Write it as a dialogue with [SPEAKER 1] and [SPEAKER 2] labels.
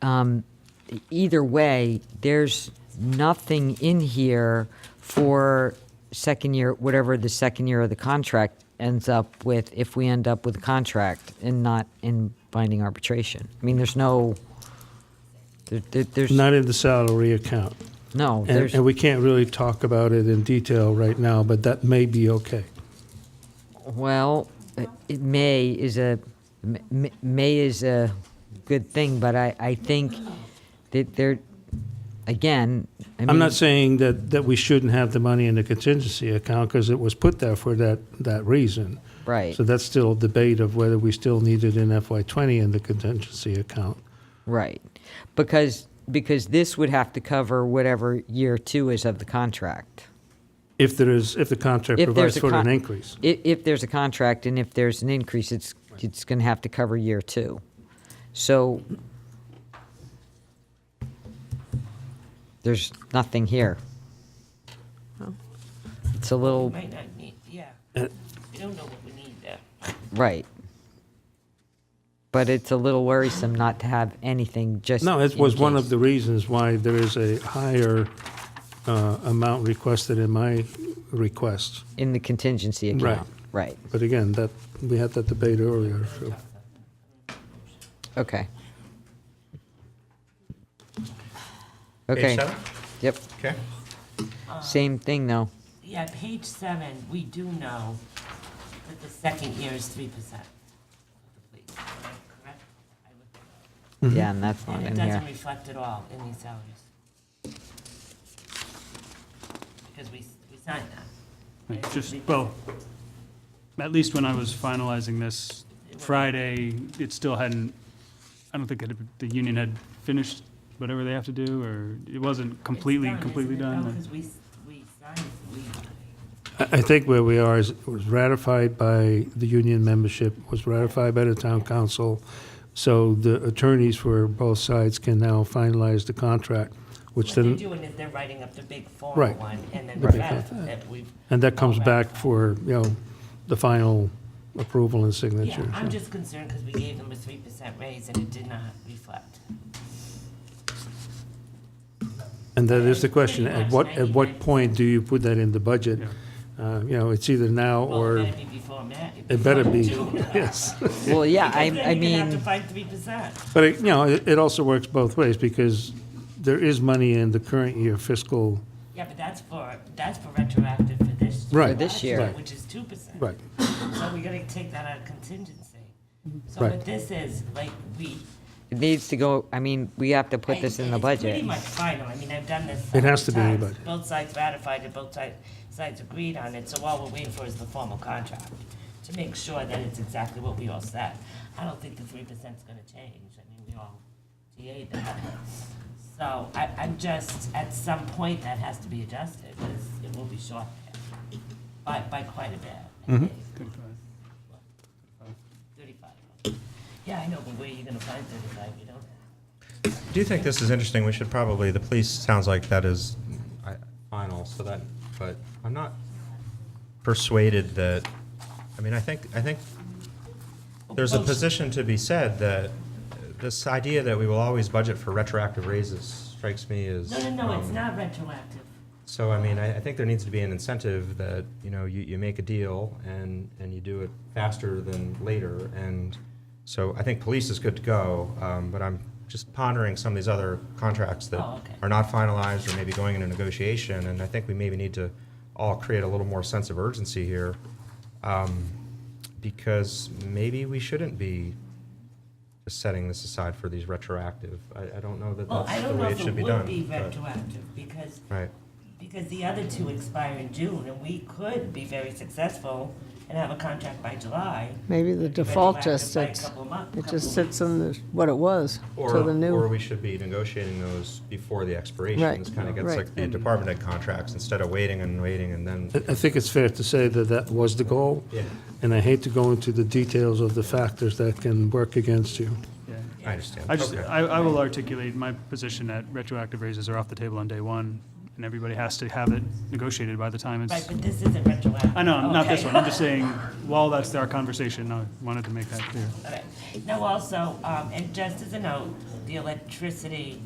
[SPEAKER 1] um, either way, there's nothing in here for second year, whatever the second year of the contract ends up with, if we end up with a contract and not in binding arbitration. I mean, there's no, there, there- there's,
[SPEAKER 2] Not in the salary account.
[SPEAKER 1] no,
[SPEAKER 2] And,
[SPEAKER 1] there's,
[SPEAKER 2] and we can't really talk about it in detail right now, but that may be okay.
[SPEAKER 1] well, it- it may is a, m- m- may is a good thing, but I, I think that there, again, I mean.
[SPEAKER 2] I'm not saying that, that we shouldn't have the money in the contingency account because it was put there for that, that reason.
[SPEAKER 1] Right,
[SPEAKER 2] So that's still a debate of whether we still need it in FY twenty in the contingency account.
[SPEAKER 1] right. Because, because this would have to cover whatever year two is of the contract.
[SPEAKER 2] If there is, if the contract
[SPEAKER 1] If there's
[SPEAKER 2] provides
[SPEAKER 1] a
[SPEAKER 2] for an
[SPEAKER 1] con-
[SPEAKER 2] increase.
[SPEAKER 1] If, if there's a contract and if there's an increase, it's, it's going to have to cover year two. So there's nothing here. It's a little,
[SPEAKER 3] Might not need, yeah.
[SPEAKER 2] Uh,
[SPEAKER 3] We don't know what we need there.
[SPEAKER 1] right. But it's a little worrisome not to have anything just.
[SPEAKER 2] No, it
[SPEAKER 1] in
[SPEAKER 2] was one
[SPEAKER 1] case.
[SPEAKER 2] of the reasons why there is a higher uh, amount requested in my request.
[SPEAKER 1] In the contingency account. Right,
[SPEAKER 2] But again, that, we had that debate earlier. so.
[SPEAKER 1] okay. Okay,
[SPEAKER 4] seven?
[SPEAKER 1] yep,
[SPEAKER 4] Okay.
[SPEAKER 1] same thing though.
[SPEAKER 3] Yeah, page seven, we do know that the second year is three percent. Correct? I looked it up.
[SPEAKER 4] Mm-hmm.
[SPEAKER 1] Yeah, and that's not
[SPEAKER 3] And it
[SPEAKER 1] in here.
[SPEAKER 3] doesn't reflect at all in these salaries. Because we, we signed that.
[SPEAKER 5] Right, Just, well, at least when I was finalizing this Friday, it still hadn't, I don't think it had- the union had finished whatever they have to do, or it wasn't completely, completely done.
[SPEAKER 3] Because we, we signed, we,
[SPEAKER 2] I I think where we are is it was ratified by the union membership, was ratified by the town council. So the attorneys for both sides can now finalize the contract, which
[SPEAKER 3] what they're
[SPEAKER 2] then,
[SPEAKER 3] doing is they're writing up the big formal
[SPEAKER 2] Right.
[SPEAKER 3] one and then
[SPEAKER 2] The big
[SPEAKER 3] that,
[SPEAKER 2] form.
[SPEAKER 3] that we've
[SPEAKER 2] and that comes
[SPEAKER 3] All
[SPEAKER 2] back for, you know, the final approval and signature.
[SPEAKER 3] Yeah, I'm just concerned because we gave them a three percent raise and it did not reflect.
[SPEAKER 2] And that is the question,
[SPEAKER 3] Pretty
[SPEAKER 2] at
[SPEAKER 3] much
[SPEAKER 2] what, at what
[SPEAKER 3] 99%.
[SPEAKER 2] point do you put that in the budget? Uh, You know, it's either now
[SPEAKER 3] Well, it
[SPEAKER 2] or,
[SPEAKER 3] better be before Ma-
[SPEAKER 2] it better
[SPEAKER 3] before
[SPEAKER 2] be,
[SPEAKER 3] June.
[SPEAKER 2] yes.
[SPEAKER 1] Well, yeah,
[SPEAKER 3] Because
[SPEAKER 1] I,
[SPEAKER 3] then
[SPEAKER 1] I
[SPEAKER 3] you're gonna have to
[SPEAKER 1] mean,
[SPEAKER 3] fight three percent.
[SPEAKER 2] But, it- you know, it it also works both ways, because there is money in the current year fiscal,
[SPEAKER 3] Yeah, but that's for, that's for retroactive for this.
[SPEAKER 2] Right.
[SPEAKER 1] For this
[SPEAKER 3] last
[SPEAKER 1] year. Right.
[SPEAKER 3] Which is two percent.
[SPEAKER 2] right,
[SPEAKER 3] So we're gonna take that out of contingency. So
[SPEAKER 2] Right.
[SPEAKER 3] what this is, like, we.
[SPEAKER 1] it needs to go, I mean, we have to put
[SPEAKER 3] I-
[SPEAKER 1] this in the
[SPEAKER 3] It's pretty
[SPEAKER 1] budget.
[SPEAKER 3] much final, I mean, I've done this.
[SPEAKER 2] It has to be in the
[SPEAKER 3] several times.
[SPEAKER 2] budget.
[SPEAKER 3] Both sides ratified it, both sides, sides agreed on it, so all we're waiting for is the formal contract to make sure that it's exactly what we all said. I don't think the three percent's gonna change, I mean, we all ta that. So I, I'm just, at some point, that has to be adjusted, because it will be short there, by, by quite a bit. I
[SPEAKER 2] Mm-hmm.
[SPEAKER 3] think. Thirty-five. Yeah, I know, but where are you gonna find thirty-five, you don't have.
[SPEAKER 4] Do you think this is interesting? We should probably, the police sounds like that is I- final, so that, but I'm not persuaded that, I mean, I think, I think there's a
[SPEAKER 3] Well,
[SPEAKER 4] position to be said that uh, this idea that we will always budget for retroactive raises strikes me as.
[SPEAKER 3] No, no, no, it's
[SPEAKER 4] um,
[SPEAKER 3] not retroactive.
[SPEAKER 4] So, I mean, I, I think there needs to be an incentive that, you know, you, you make a deal and, and you do it faster than later. And so I think police is good to go, um, but I'm just pondering some of these other contracts that
[SPEAKER 3] Oh, okay.
[SPEAKER 4] are not finalized or maybe going into negotiation. And I think we maybe need to all create a little more sense of urgency here. Um, because maybe we shouldn't be just setting this aside for these retroactive. I, I don't know that
[SPEAKER 3] Well, I
[SPEAKER 4] that's the
[SPEAKER 3] don't know
[SPEAKER 4] way it
[SPEAKER 3] if
[SPEAKER 4] should
[SPEAKER 3] it
[SPEAKER 4] be
[SPEAKER 3] would
[SPEAKER 4] done.
[SPEAKER 3] be
[SPEAKER 4] but-
[SPEAKER 3] retroactive, because,
[SPEAKER 4] Right.
[SPEAKER 3] because the other two expire in June, and we could be very successful and have a contract by July.
[SPEAKER 6] Maybe the default
[SPEAKER 3] retroactive
[SPEAKER 6] just
[SPEAKER 3] by a
[SPEAKER 6] sits,
[SPEAKER 3] couple of month-
[SPEAKER 6] it
[SPEAKER 3] couple of
[SPEAKER 6] just sits in the, what it was,
[SPEAKER 4] Or,
[SPEAKER 6] till the
[SPEAKER 4] or
[SPEAKER 6] new.
[SPEAKER 4] we should be negotiating those before the expiration.
[SPEAKER 6] Right,
[SPEAKER 4] This kind of gets
[SPEAKER 6] right.
[SPEAKER 4] like the department head contracts, instead of waiting and waiting and then.
[SPEAKER 2] I I think it's fair to say that that was the goal.
[SPEAKER 4] Yeah.
[SPEAKER 2] And I hate to go into the details of the factors that can work against you.
[SPEAKER 5] Yeah.
[SPEAKER 4] I understand.
[SPEAKER 5] I just,
[SPEAKER 4] Okay.
[SPEAKER 5] I, I will articulate my position that retroactive raises are off the table on day one, and everybody has to have it negotiated by the time
[SPEAKER 3] Right,
[SPEAKER 5] it's,
[SPEAKER 3] but this isn't retroactive.
[SPEAKER 5] I know, not this
[SPEAKER 3] Okay.
[SPEAKER 5] one, I'm just saying, while that's our conversation, I wanted to make that clear.
[SPEAKER 3] All right. Now also, um, and just as a note, the electricity